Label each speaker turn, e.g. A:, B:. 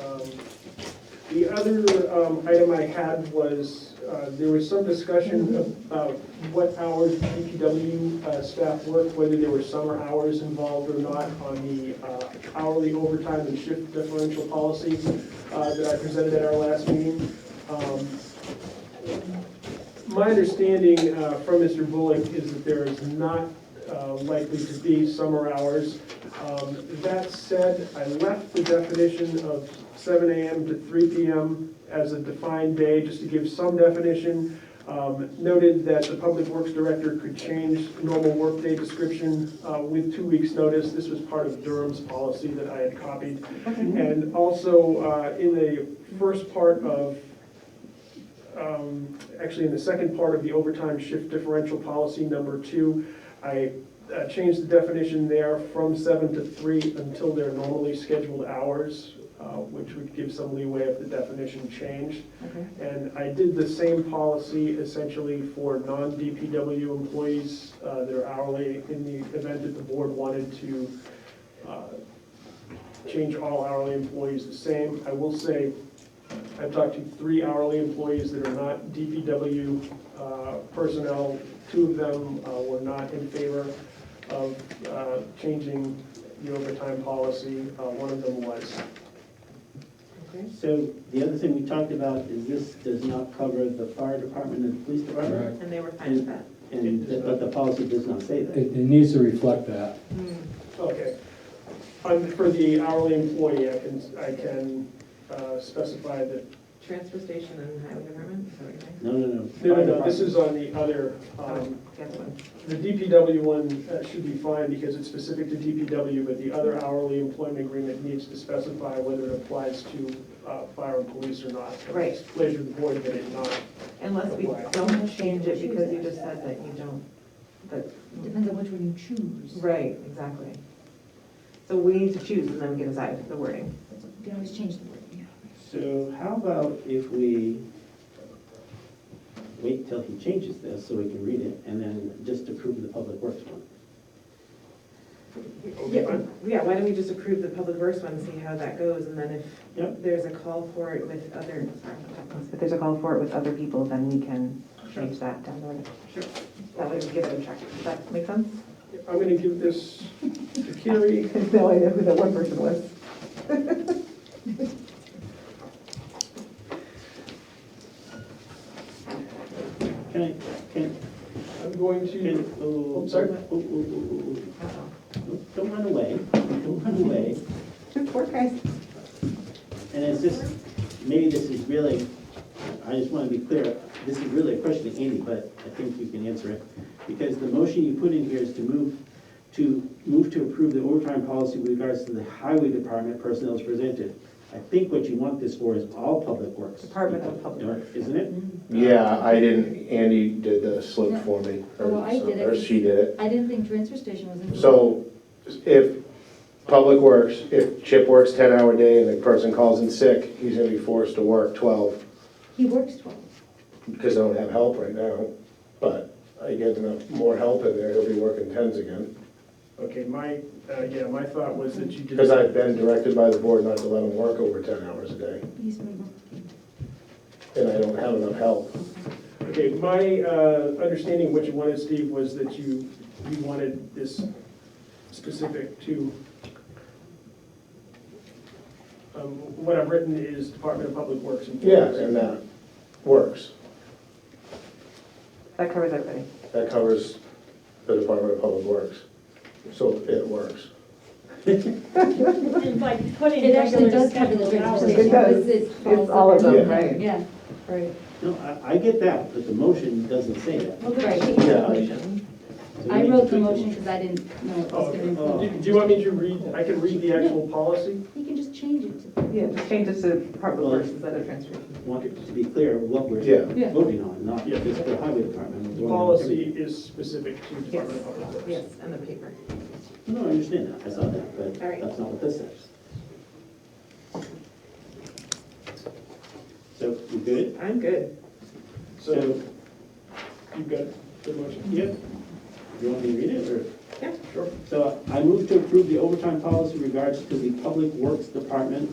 A: Um, The other um, item I had was, uh, there was some discussion about what hours DPW uh, staff work, whether there were summer hours involved or not on the uh, hourly overtime and shift differential policy uh, that I presented at our last meeting. Um, My understanding uh, from Mr. Bullock is that there is not uh, likely to be summer hours. Um, That said, I left the definition of seven AM to three PM as a defined day, just to give some definition. Um, Noted that the Public Works Director could change normal workday description uh, with two weeks' notice. This was part of Durham's policy that I had copied. And also, uh, in the first part of, um, actually, in the second part of the overtime shift differential policy number two, I uh, changed the definition there from seven to three until their normally scheduled hours, uh, which would give some leeway if the definition changed.
B: Okay.
A: And I did the same policy essentially for non-DPW employees uh, that are hourly in the event that the board wanted to uh, change all hourly employees the same. I will say, I've talked to three hourly employees that are not DPW uh, personnel. Two of them uh, were not in favor of uh, changing the overtime policy. Uh, One of them was.
B: Okay.
C: So the other thing we talked about is this does not cover the fire department and the police department,
B: And they were fine with that.
C: and, th- but the policy does not say
D: It,
C: that.
D: it needs to reflect that.
B: Hmm.
A: Okay. Um, For the hourly employee, I can, I can uh, specify that,
B: Transfer station and highway department, is that what you're saying?
C: No, no, no.
A: no, no,
C: Fire
A: no, this
C: department.
A: is on the other, um,
B: The other one.
A: the DPW one uh, should be fine because it's specific to DPW, but the other hourly employment agreement needs to specify whether it applies to uh, fire and police or not.
B: Right.
A: It's Pleasure of the board that it not.
B: Unless we don't change it because you just said that you don't, that,
E: Depends on which one you choose.
B: right, exactly. So we need to choose and then we can decide the wording.
E: You can always change the word, yeah.
C: So how about if we wait till he changes this so we can read it, and then just approve the public works one?
B: Yeah, yeah, why don't we just approve the public works one, and see how that goes, and then
C: Yep.
B: if there's a call for it with other, sorry, if there's a call for it with other people, then we can change that down the road.
C: Sure.
B: That way we give it a check. Does that make sense?
A: I'm going to give this to Carrie.
B: No idea who that one person was.
C: Can I, can,
A: I'm going to,
C: can, oh,
A: I'm sorry?
C: oh, oh, oh, oh, oh. Don't- Don't run away, don't run away.
B: Poor guys.
C: And it's just, maybe this is really, I just want to be clear, this is really a question to Andy, but I think you can answer it. Because the motion you put in here is to move, to move to approve the overtime policy with regards to the highway department personnel as presented. I think what you want this for is all public works.
B: Department of Public Works.
C: Isn't it?
F: Yeah, I didn't, Andy did the slip for me. or
E: Well, Um, Oh, I did it.
F: Or she did it.
E: I didn't think transfer station was included.
F: So if Public Works, if Chip works ten hour day and the person calls in sick, he's gonna be forced to work twelve,
E: He works twelve.
F: because I don't have help right now. But I get enough, more help in there, he'll be working tens again.
A: okay, my, uh, yeah, my thought was that you did.
F: Because I've been directed by the board not to let him work over ten hours a day,
E: He's working.
F: and I don't have enough help.
A: Okay, my uh, understanding of what you wanted, Steve, was that you, you wanted this specific to, um, what I've written is Department of Public Works.
F: Yeah, and uh, that works.
B: That covers everybody.
F: That covers the Department of Public Works. So it works.
G: And by putting
E: It actually
G: regular
E: does cover the
G: scheduled
E: transfer
G: hours.
E: station.
B: It does.
E: It's-
B: It's all of
F: them,
B: them,
F: Yeah.
B: right?
E: Yeah,
B: Right.
C: No, I, I get that, but the motion doesn't say that.
E: right.
F: Yeah, I-
C: So we
E: I
C: need to
E: wrote the
C: tweak
E: motion because I didn't know it
A: Oh,
E: was
A: okay.
E: gonna
C: Oh.
A: Do
E: include.
A: do you want me to read, I can read the actual policy?
E: He can just change it to,
B: Yeah, just change it to Department of Works instead of transportation.
C: Want it to be clear what we're
F: Yeah.
E: Yeah.
C: voting on, not
A: Yeah.
C: just the highway department. we're
A: The
C: voting on
A: policy
C: everything.
A: is specific to Department of Public Works.
B: Yes, and the paper.
C: No, I understand that, I saw that, but
B: All right.
C: that's not what this says. So, you good?
B: I'm good.
A: So you've got the motion?
C: Yep. You want me to read it, or?
B: Yeah.
A: Sure.
C: So I move to approve the overtime policy regards to the Public Works Department